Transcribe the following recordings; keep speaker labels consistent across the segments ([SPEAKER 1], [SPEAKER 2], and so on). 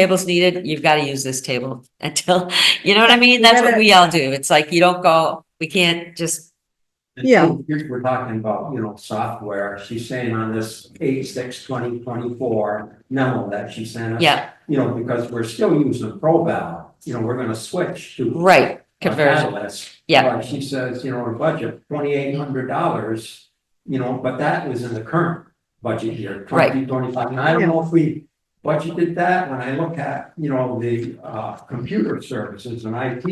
[SPEAKER 1] table's needed, you've got to use this table until, you know what I mean? That's what we all do. It's like, you don't go, we can't just,
[SPEAKER 2] Yeah.
[SPEAKER 3] Here we're talking about, you know, software, she's saying on this eight, six, twenty, twenty-four memo that she sent us.
[SPEAKER 1] yeah,
[SPEAKER 3] You know, because we're still using ProVal, you know, we're gonna switch to.
[SPEAKER 1] right, conversion,
[SPEAKER 3] Catalyst.
[SPEAKER 1] Yeah.
[SPEAKER 3] But she says, you know, our budget, twenty-eight hundred dollars, you know, but that was in the current budget year,
[SPEAKER 1] Right.
[SPEAKER 3] twenty twenty-five, and I don't know if we budgeted that, when I look at, you know, the, uh, computer services and IT,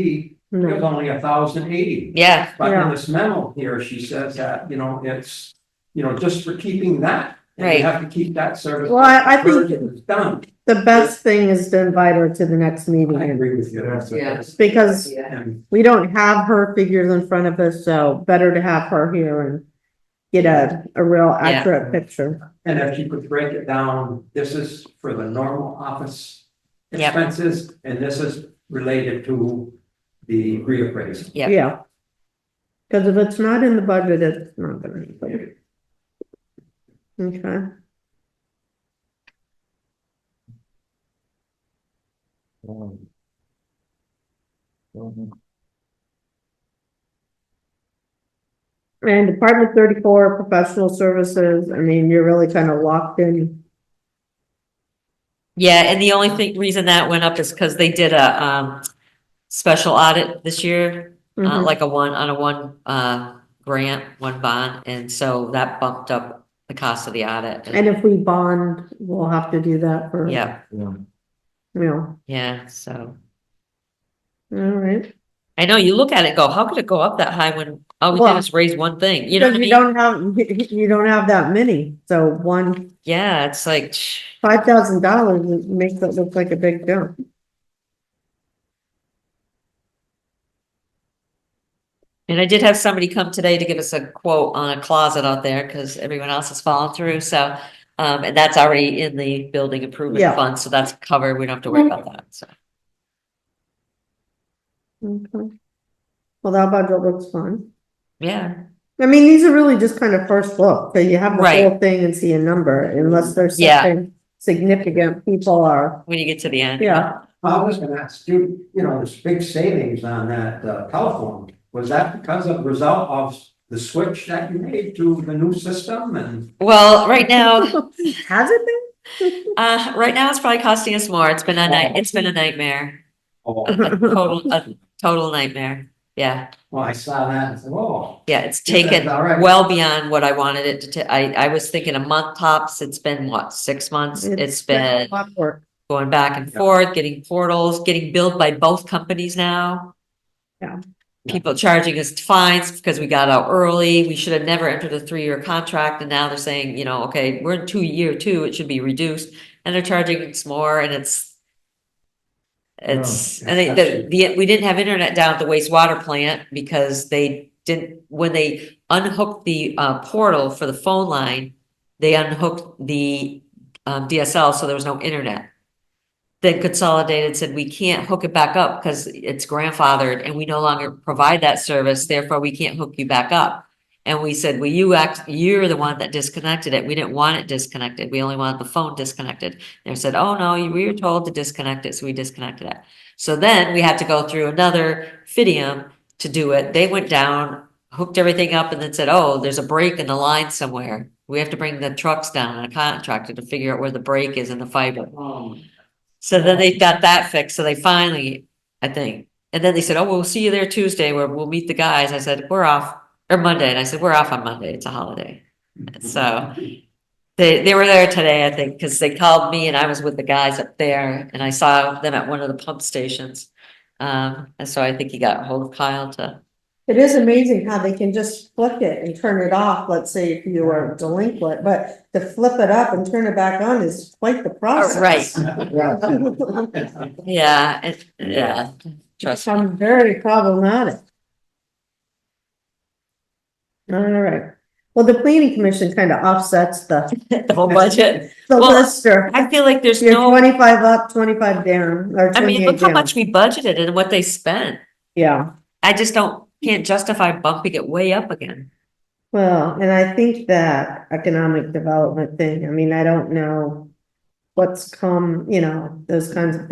[SPEAKER 3] it was
[SPEAKER 2] No.
[SPEAKER 3] only a thousand eighty.
[SPEAKER 1] yeah,
[SPEAKER 3] But in
[SPEAKER 2] Yeah.
[SPEAKER 3] this memo here, she says that, you know, it's, you know, just for keeping that. and
[SPEAKER 1] Right.
[SPEAKER 3] You have to keep that service.
[SPEAKER 2] Well, I- I think-
[SPEAKER 3] version is Done.
[SPEAKER 2] The best thing is to invite her to the next
[SPEAKER 3] I
[SPEAKER 2] meeting
[SPEAKER 3] agree with you.
[SPEAKER 1] Yeah.
[SPEAKER 2] because
[SPEAKER 3] And
[SPEAKER 2] we don't have her figures in front of us, so better to have her here and get a, a real accurate picture.
[SPEAKER 3] and if you could break it down, this is for the normal office
[SPEAKER 1] Yep.
[SPEAKER 3] expenses, and this is related to the reappraisal.
[SPEAKER 1] Yeah.
[SPEAKER 2] Yeah. Because if it's not in the budget, it's not gonna happen. Okay. And Department thirty-four, professional services, I mean, you're really kind of locked in.
[SPEAKER 1] yeah. And the only thing, reason that went up is because they did a, um, special audit this year, uh,
[SPEAKER 2] Mhm.
[SPEAKER 1] like a one, on a one, uh, grant, one bond. And so that bumped up the cost of the audit.
[SPEAKER 2] And if we bond, we'll have to do that for, you
[SPEAKER 1] Yeah,
[SPEAKER 2] know,
[SPEAKER 1] yeah, so.
[SPEAKER 2] all right.
[SPEAKER 1] I know, you look at it, and go, how could it go up that high when all we did
[SPEAKER 2] Well,
[SPEAKER 1] was raise one thing, you know
[SPEAKER 2] Because
[SPEAKER 1] what I
[SPEAKER 2] you
[SPEAKER 1] mean?
[SPEAKER 2] don't have, you don't have that many, so one,
[SPEAKER 1] Yeah, it's like, shh,
[SPEAKER 2] five thousand dollars makes it look like a big jump.
[SPEAKER 1] and I did have somebody come today to give us a quote on a closet out there, because everyone else has fallen through, so. Um, and that's already in the building improvement
[SPEAKER 2] Yeah.
[SPEAKER 1] fund, so that's covered, we don't have to worry about that, so.
[SPEAKER 2] Okay. Well, that budget looks fun.
[SPEAKER 1] Yeah,
[SPEAKER 2] I mean, these are really just kind of first look, so you have the
[SPEAKER 1] Right.
[SPEAKER 2] whole thing and see a number unless there's
[SPEAKER 1] Yeah.
[SPEAKER 2] something significant people are,
[SPEAKER 1] when you get to the end.
[SPEAKER 2] yeah.
[SPEAKER 3] I was gonna ask you, you know, there's big savings on that uh, telephone. Was that because of result of the switch that you made to the new system and?
[SPEAKER 1] Well, right now,
[SPEAKER 2] Has it been?
[SPEAKER 1] uh, right now it's probably costing us more, it's been a night, it's been a nightmare,
[SPEAKER 3] Oh,
[SPEAKER 1] a total, a total nightmare, yeah.
[SPEAKER 3] well, I saw that and said, oh.
[SPEAKER 1] Yeah, it's
[SPEAKER 3] Yeah, that's
[SPEAKER 1] taken
[SPEAKER 3] all right.
[SPEAKER 1] well beyond what I wanted it to, ta- I, I was thinking a month tops, it's been what, six months? It's been
[SPEAKER 2] a lot of work.
[SPEAKER 1] going back and
[SPEAKER 3] Yeah.
[SPEAKER 1] forth, getting portals, getting billed by both companies now.
[SPEAKER 2] Yeah.
[SPEAKER 1] People charging us fines because we got out early, we should have never entered a three-year contract, and now they're saying, you know, okay, we're in two year two, it should be reduced, and they're charging us more, and it's it's,
[SPEAKER 3] Oh, Yeah.
[SPEAKER 1] and they, the, the, we didn't have internet down at the wastewater plant because they didn't, when they unhooked the, uh, portal for the phone line, they unhooked the, um, DSL, so there was no internet. Then Consolidated said, we can't hook it back up because it's grandfathered and we no longer provide that service, therefore we can't hook you back up. And we said, well, you act, you're the one that disconnected it. We didn't want it disconnected. We only wanted the phone disconnected. They said, oh no, you- we were told to disconnect it, so we disconnected it. So then we had to go through another Fidium to do it. They went down, hooked everything up and then said, oh, there's a break in the line somewhere. We have to bring the trucks down and a contractor to figure out where the break is in the fiber. So then they got that fixed. So they finally, I think, and then they said, oh, we'll see you there Tuesday where we'll meet the guys. I said, we're off, or Monday. And I said, we're off on Monday. It's a holiday. So they, they were there today, I think, because they called me and I was with the guys up there and I saw them at one of the pump stations. Um, and so I think he got hold of Kyle to,
[SPEAKER 2] It is amazing how they can just flip it and turn it off, let's say if you are delinquent, but to flip it up and turn it back on is quite the process.
[SPEAKER 1] right,
[SPEAKER 3] Yeah.
[SPEAKER 1] yeah, it, yeah, trust me.
[SPEAKER 2] Sounds very problematic. All right, well, the planning commission kind of offsets the,
[SPEAKER 1] the whole budget.
[SPEAKER 2] the
[SPEAKER 1] Well,
[SPEAKER 2] lister.
[SPEAKER 1] I feel like there's
[SPEAKER 2] You're
[SPEAKER 1] no,
[SPEAKER 2] twenty-five up, twenty-five down, or
[SPEAKER 1] I mean,
[SPEAKER 2] twenty-eight
[SPEAKER 1] look how
[SPEAKER 2] down.
[SPEAKER 1] much we budgeted and what they spent.
[SPEAKER 2] Yeah,
[SPEAKER 1] I just don't, can't justify bumping it way up again.
[SPEAKER 2] well, and I think that economic development thing, I mean, I don't know. what's come, you know, those kinds of